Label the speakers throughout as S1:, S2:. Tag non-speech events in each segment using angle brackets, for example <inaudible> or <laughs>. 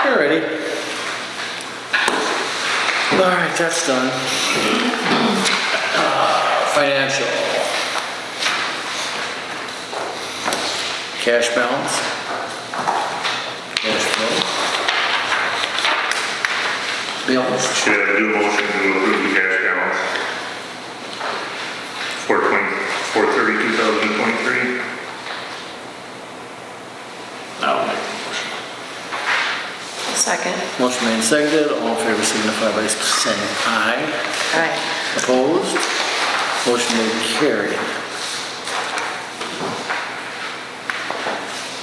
S1: Alrighty. Alright, that's done. Financial. Cash balance. Cash flow. Bills.
S2: Should I do a motion to approve the cash balance? For twenty, for thirty, two thousand twenty-three?
S3: I'll make the motion.
S4: Second.
S1: Motion made and seconded, all in favor signify by saying aye.
S4: Aye.
S1: Opposed? Motion made and carried.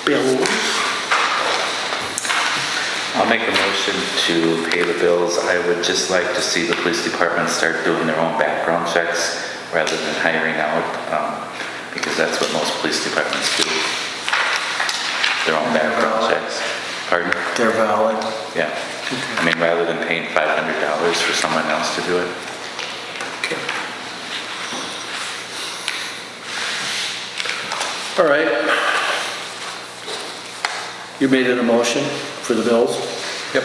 S1: Bills.
S5: I'll make a motion to pay the bills. I would just like to see the police department start doing their own background checks rather than hiring out, um, because that's what most police departments do. Their own background checks. Pardon?
S1: They're valid.
S5: Yeah. I mean, rather than paying $500 for someone else to do it.
S1: All right. You made it a motion for the bills? Yep.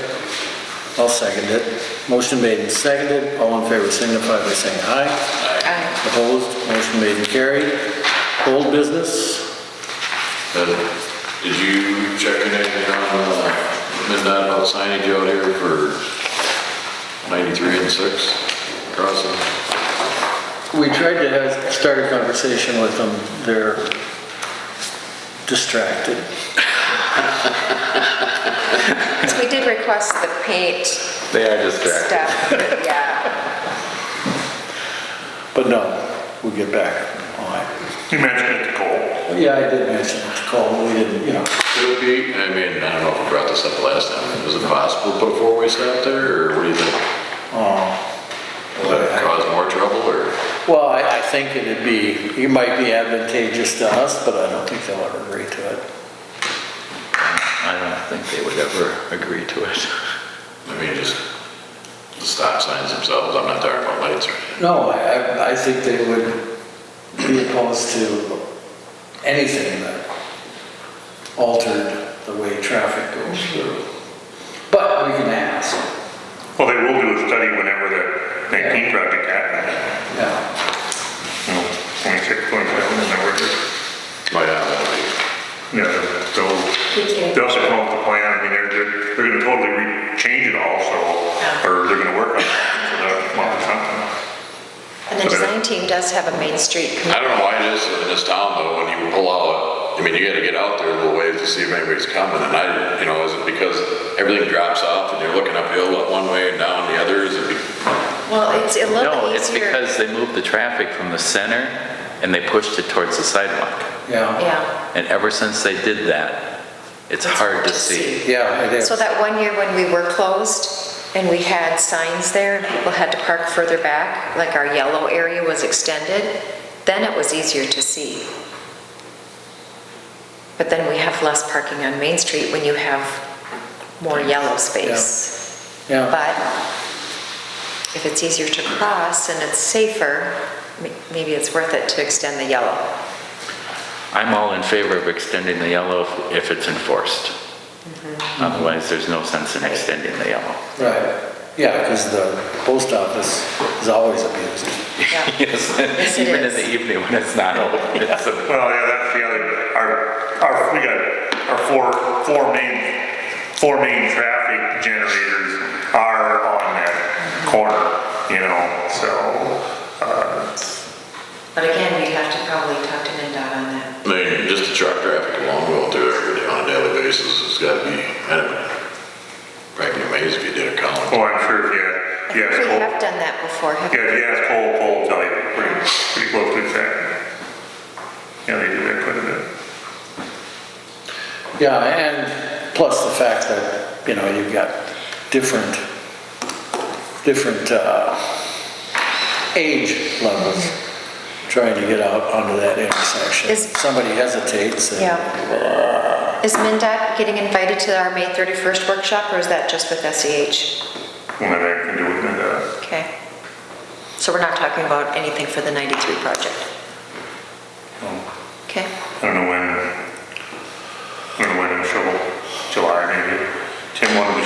S1: I'll second it. Motion made and seconded, all in favor signify by saying aye.
S4: Aye.
S1: Opposed? Motion made and carried. Old business?
S3: Uh, Did you check anything on uh, midnight about signage out here for 93 and 6 crossing?
S1: We tried to have, start a conversation with them, they're distracted.
S4: So we did request the paint
S5: They are distracted.
S4: stuff, but yeah.
S1: But no, we'll get back on it.
S2: You mentioned it to Cole.
S1: Yeah, I did mention it to Cole, we didn't, you know,
S3: Could it be, I mean, I don't know if we brought this up last time, is it possible to put a four-way stop there, or what do you think? Will that cause more trouble, or?
S1: well, I, I think it'd be, it might be advantageous to us, but I don't think they'll ever agree to it.
S5: I don't think they would ever agree to it.
S3: I mean, just the stop signs themselves, I'm not talking about lights or anything.
S1: No, I, I- I think they would be opposed to anything that altered the way traffic goes through. But we can ask,
S2: Well, they will do a study whenever the nineteen project happens.
S1: yeah.
S2: No, Twenty-six, twenty-seven, whenever. it is.
S3: Oh, yeah, that'd be-
S2: Yeah, they'll, they'll also come up with a plan, I mean, they're, they're, they're gonna totally re- change it all, so, or they're gonna work on it, so they'll come up with something.
S4: And the design team does have a Main Street committee.
S3: I don't know why it is in this town though, when you pull out, I mean, you gotta get out there a little ways to see if anybody's coming, and I, you know, is it because everything drops off and you're looking uphill one way and down the other, is it? be-
S4: Well, it's a little
S5: No, it's
S4: easier.
S5: because they moved the traffic from the center and they pushed it towards the sidewalk.
S1: Yeah,
S4: Yeah.
S5: And ever since they did that, it's hard to see.
S1: yeah, it is.
S4: So that one year when we were closed and we had signs there and people had to park further back, like our yellow area was extended, then it was easier to see. But then we have less parking on Main Street when you have more yellow space.
S1: Yeah,
S4: But if it's easier to cross and it's safer, m- maybe it's worth it to extend the yellow.
S5: I'm all in favor of extending the yellow if- if it's enforced. Otherwise, there's no sense in extending the yellow.
S1: right, yeah, because the post office is always abused.
S4: Yeah.
S5: Yes,
S4: it
S5: <laughs> even in
S4: is.
S5: the evening when it's not open, it's a-
S2: Well, yeah, that's the other, our, our, we got our four, four main, four main traffic generators are on that corner, you know, so.
S4: But again, we'd have to probably talk to MinDOT on that.
S3: I mean, just the truck traffic alone going through every day on a daily basis, it's gotta be, I'd probably be amazed if you did a column.
S2: Oh, I'm sure if you, you
S4: I think we have
S2: ask
S4: done that before,
S2: Cole,
S4: haven't
S2: yeah, if you ask Cole, Cole will tell you pretty, pretty close to that. Yeah, they do that quite a bit.
S1: Yeah, and plus the fact that, you know, you've got different, different uh, age levels trying to get out onto that intersection.
S4: Is-
S1: Somebody hesitates and.
S4: Yeah. Is MinDOT getting invited to our May 31st workshop, or is that just with E SEH?
S2: Whenever I can do it, and, uh,
S4: Okay. So we're not talking about anything for the 93 project? Okay.
S2: I don't know when,